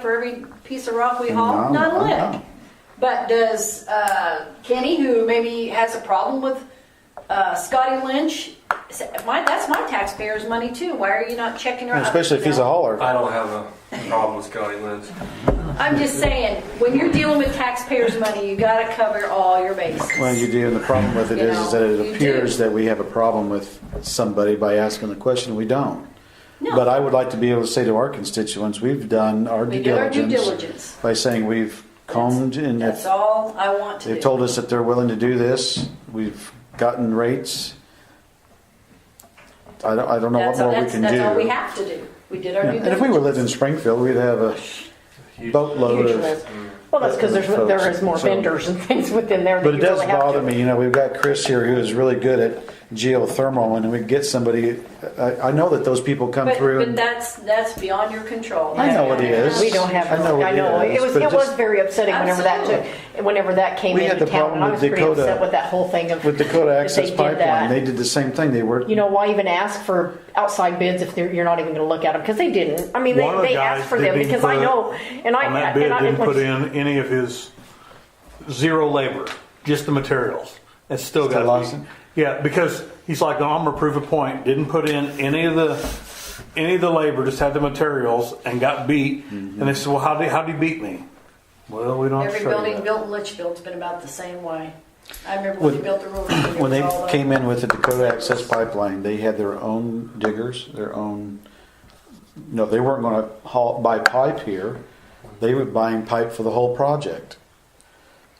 for every piece of rock we No, haul? Not a I lick. know. But does uh, Kenny, who maybe has a problem with uh, Scotty Lynch, say, my, that's my taxpayers' money too. Why are you not checking her? out?" Especially if he's a hauler. I don't have a problem with Scotty Lynn's. I'm just saying, when you're dealing with taxpayers' money, you got to cover all your bases. Well, you do, and the problem with it You is, is that know, you it do. appears that we have a problem with somebody by asking the question, we don't. No. But I would like to be able to say to our constituents, we've done our We due did our due diligence diligence. by saying we've combed and That's if all I want to do. they've told us that they're willing to do this, we've gotten rates. I don't, I don't know what that's all, more we that's, can that's all we do. have to do. We did our Yeah. due And diligence. if we were living in Springfield, we'd have a boatload of Well, that's because there's, Folks, there is more so- vendors and things within there that But it you does really have bother to. me, you know, we've got Chris here who is really good at geothermal, and we get somebody, I, I know that those people come but, through. but and that's that's beyond your control. I know it is. We don't have, I know it I know, it is, was, but it was just- very upsetting whenever that took, whenever that came We had into the town. problem And I with was pretty Dakota- upset with that whole thing of. With Dakota that they Access did Pipeline, that. they did the same thing, they worked. You know, why even ask for outside bids if they're- you're not even gonna look at them? Because they didn't. I mean, they, One of the they guys asked for didn't them even because I put- know, and I. On that and bid, I- didn't like- put in any of his zero labor, just the materials. It's still Still got to lost it? be. Yeah, because he's like, no, I'm gonna prove a point, didn't put in any of the, any of the labor, just had the materials and got beat. And they said, well, how'd he, how'd he beat me? Well, we don't have to Every show building you that. built in Litchfield's been about the same way. I remember When- when they built the roof. it When they was all the- came in with the Dakota Access Pipeline, they had their own diggers, their own, no, they weren't gonna haul, buy pipe here. They were buying pipe for the whole project.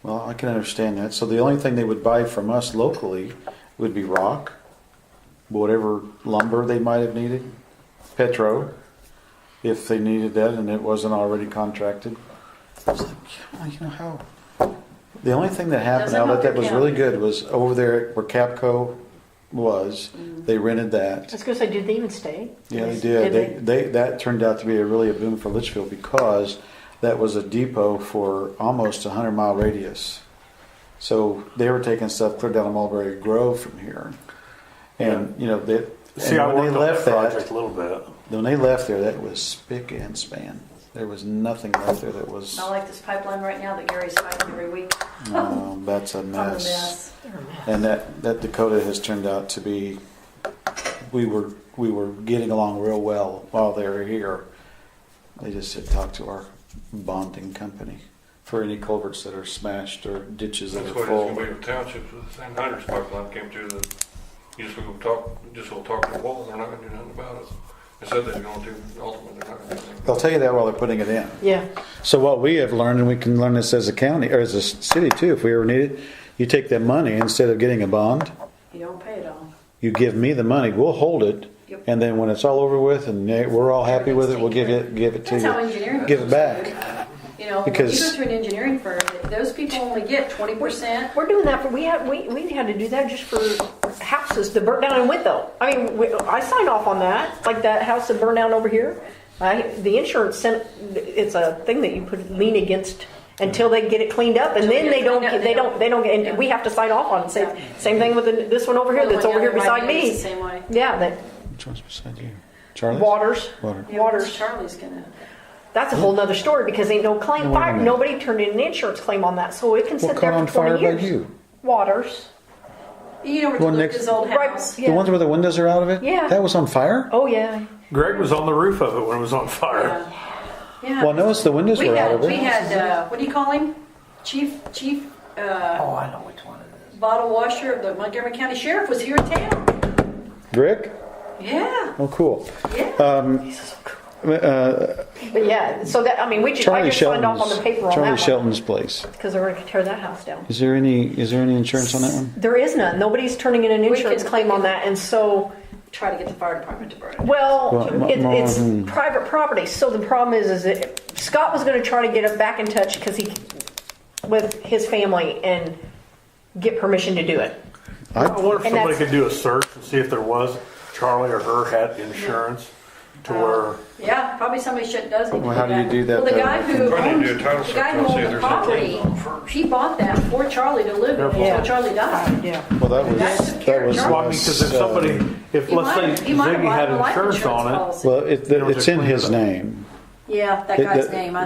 Well, I can understand that. So the only thing they would buy from us locally would be rock, whatever lumber they might have needed, petro, if they needed that and it wasn't already contracted. I was like, "Yeah, you know how? The only thing that happened Doesn't out help that that your was really good was over there where Capco was, Mm-hmm. they rented I that. was gonna say, did they even stay? Yeah, they did. They, they, that turned out to be a really a boom for Litchfield because that was a depot for almost a hundred mile radius. So they were taking stuff clear down to Mulberry Grove from here. And, you know, they, See, I and when worked they on that left that, project a little bit. when they left there, that was spick and span. There was nothing left there that was, I like this pipeline right now that Gary's fighting every week. no, um, that's a I'm a mess. mess. And that, that Dakota has turned out to be, we were, we were getting along real well while they were here. They just had talked to our bonding company for any culverts that are smashed or ditches that are That's what it's gonna full. be with townships, with the same hydro pipeline came through the, you just go talk, just go talk to the wall, they're not gonna do nothing about it. They said they're gonna do, ultimately, they're not gonna do anything. They'll tell you that while they're putting it in. Yeah. So what we have learned, and we can learn this as a county, or as a s- city too, if we ever need it, you take that money, instead of getting a bond, You don't pay it all. you give me the money, we'll hold it, Yep. and then when it's all over with and eh, we're all happy with it, we'll give it, give it to That's how you. engineering. Give it firms back. do. You know, when you go Because- to an engineering firm, those people only get twenty percent. We're doing that for, we had, we, we had to do that just for houses that burnt down in Wintham. I mean, we, I signed off on that, like that house that burned down over here. I, the insurance sent, it's a thing that you put lien against until they get it cleaned up and Until then they they get don't, cleaned up, get- they don't, they don't get, and we have to sign off on it. Same, same thing with the- this one over here that's over here beside The me. same way. Yeah, that, Which one's beside you? Charlie's? waters, Water. Yeah, what's waters. Charlie's gonna. That's a whole nother story because ain't no claim, Now, wait a fire, minute. nobody turned in an insurance claim on that, so it can What sit there caught on for fire twenty by years. you? Waters. You know where Well, Luke's next- old Right, house. The Yeah. ones where the windows are out of it? Yeah. That was on fire? Oh, yeah. Greg was on the roof of it when it was on fire. Yeah. Yeah. Well, I noticed the windows We were out had, of we it. had, uh, what do you call him? Chief, chief, uh, Oh, I know which one it is. bottle washer of the Montgomery County Sheriff was here in town. Rick? Yeah, Oh, cool. yeah. Uh, But yeah, so that, I mean, we just, I Charlie just signed off on Shelton's, the paper on Charlie that one. Shelton's place. Because they're gonna tear that house down. Is there any, is there any insurance on that one? There is none. Nobody's turning in an We insurance could- claim on that, and so, Try to get the fire department to burn it. well, Well, it- m- it's mhm. private property, so the problem is, is that Scott was gonna try to get it back in touch, cause he, with his family, and get permission to do it. I wonder And if somebody that's- could do a search and see if there was Charlie or her had insurance to where. Yeah, probably somebody should, does need to do Well, how do you do that, Well, the though? guy who Probably owned, do a title the guy search who and see if owned the there's no property, claims on it first. he bought that for Charlie to live in Yeah. until Charlie died. Yeah. Well, that was, That's that was. Well, I mean, because if uh, somebody, if He might let's have- say he might have Ziggy had bought a life insurance on it, policy. Well, it, There was it's a in clean his up. name. Yeah, that It- guy's that- name, I